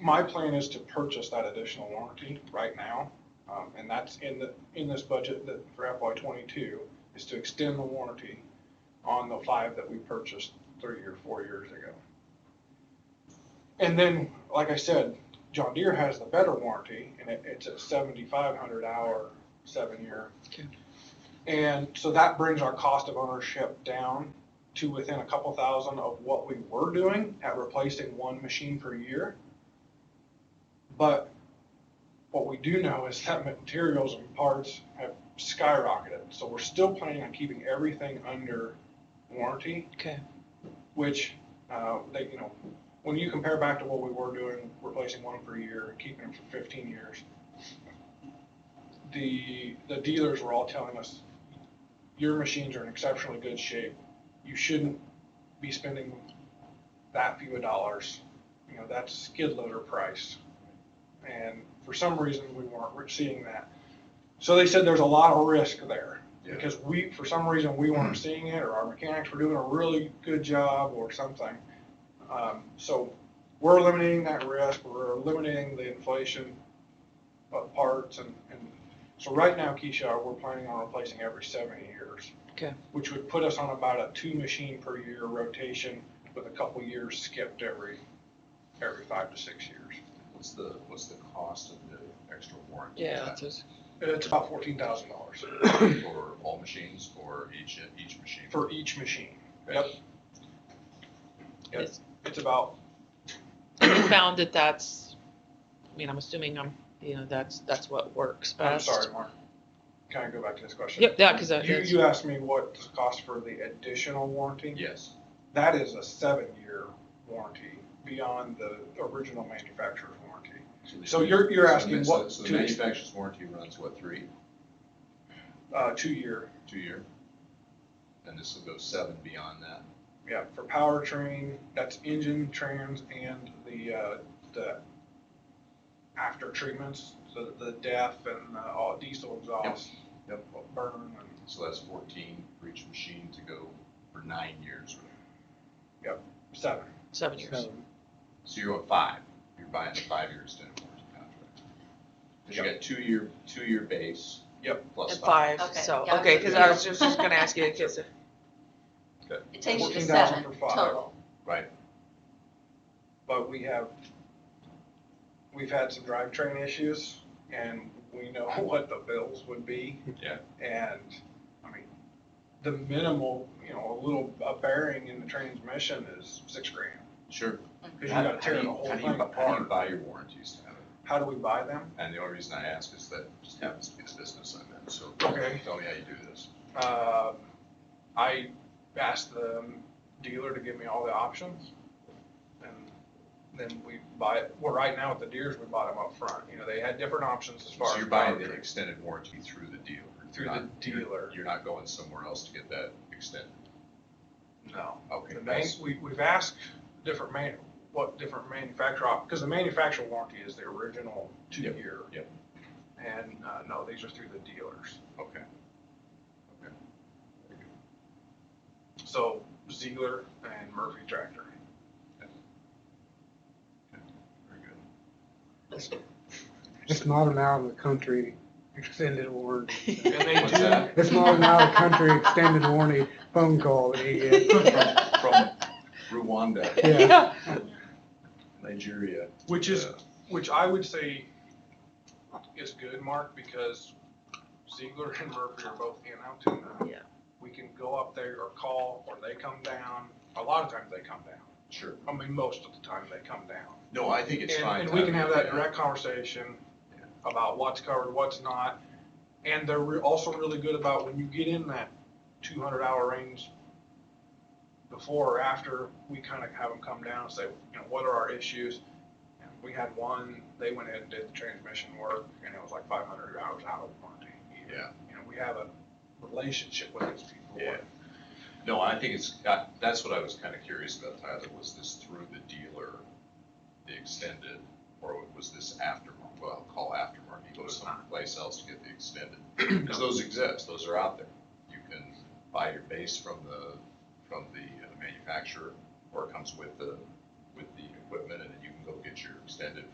My plan is to purchase that additional warranty right now, um, and that's in the, in this budget that for FY twenty-two, is to extend the warranty on the five that we purchased three or four years ago. And then, like I said, John Deere has the better warranty, and it, it's a seventy-five hundred hour, seven-year. Okay. And so that brings our cost of ownership down to within a couple thousand of what we were doing at replacing one machine per year. But what we do know is that materials and parts have skyrocketed, so we're still planning on keeping everything under warranty. Okay. Which, uh, they, you know, when you compare back to what we were doing, replacing one per year, keeping them for fifteen years, the, the dealers were all telling us, your machines are in exceptionally good shape, you shouldn't be spending that few of dollars, you know, that's skid loader price. And for some reason, we weren't re- seeing that. So they said there's a lot of risk there, Yeah. because we, for some reason, we weren't seeing it, or our mechanics were doing a really good job or something. Um, so we're eliminating that risk, we're eliminating the inflation of parts and, and, so right now, Keisha, we're planning on replacing every seventy years. Okay. Which would put us on about a two machine per year rotation with a couple years skipped every, every five to six years. What's the, what's the cost of the extra warranty? Yeah, Is that's it. It's about fourteen thousand dollars that For all machines or each, each machine? for each machine. Okay. Yep. Yep, it's about, You found that that's, I mean, I'm assuming I'm, you know, that's, that's what works I'm best. sorry, Mark. Can I go back to this question? Yep, yeah, 'cause that- You, that's- you asked me what the cost for the additional warranty? Yes, That is a seven-year warranty beyond the original manufacturer's warranty. So you're- you're so the- asking so- what So the to- manufacturer's warranty runs what, three, Uh, two-year, two year? And this will go seven beyond that? yeah, for powertrain, that's engine, trans, and the, uh, the after treatments, so the DEF and uh, all diesel exhaust. Yep. Burn and So that's fourteen for each machine to go for nine years. seven. Seven years. So you're at five, you're buying a five-year extended warranty contract. Cause you Yep. got two-year, two-year base. Yep. Plus And five. five, Okay, so, yeah, okay, that's cause what I it was is. just gonna ask you, 'cause- It takes you to 14,000 seven for five. total. Right, But we have, we've had some drivetrain issues and we know what the bills would be. yeah, And, I mean, the minimal, you know, a little, a bearing in the transmission is six grand. sure. Cause you How- gotta how tear do the you- whole how do thing you bu- How do you apart. buy your warranties, Tyler? How do we buy them? And the only reason I ask is that just happens to be the business I'm in, so Okay. tell me how you do this. Uh, I asked the dealer to give me all the options. And then we buy, it. well, right now with the deers, we bought them up front. You know, they had different options as far as. So you're buying the powertrain. extended warranty through the dealer? You're Through the not- you're- dealer. You're not going somewhere else to get that extended? No. Okay. The man, that's- we, we've asked different man, what different manufacturer, because the manufacturer warranty is the original Yep, two-year. yep. And, uh, no, these are through the dealers. Okay. Okay. So Ziegler and Murphy Tractor. Very good. It's not an out of the country extended warranty. And they What's do, that? It's not an out of the country extended warranty phone call that he gets. From Rwanda, Yeah. Yeah. Nigeria. which is, uh, which I would say is good, Mark, because Ziegler and Murphy are both in Altoona. Yeah. We can go up there or call, or they come down. A lot of times they come down. Sure. I mean, most of the time they come down. No, I think it's And- fine. And we can have that Tyler. direct conversation about what's covered, what's not. And they're re- also really good about when you get in that two hundred hour range, before or after, we kind of have them come down and say, you know, what are our issues? And we had one, they went ahead and did the transmission work, and it was like five hundred hours out of warranty. Yeah. You know, we have a relationship with these people. Yeah. No, I think it's, I- that's what I was kind of curious about, Tyler, was this through the dealer, the extended, or was this aftermarket, well, I'll call aftermarket, go someplace else to get the extended? Because those exist, those are out there. You can buy your base from the, from the uh, manufacturer, or it comes with the, with the equipment, and then you can go get your extended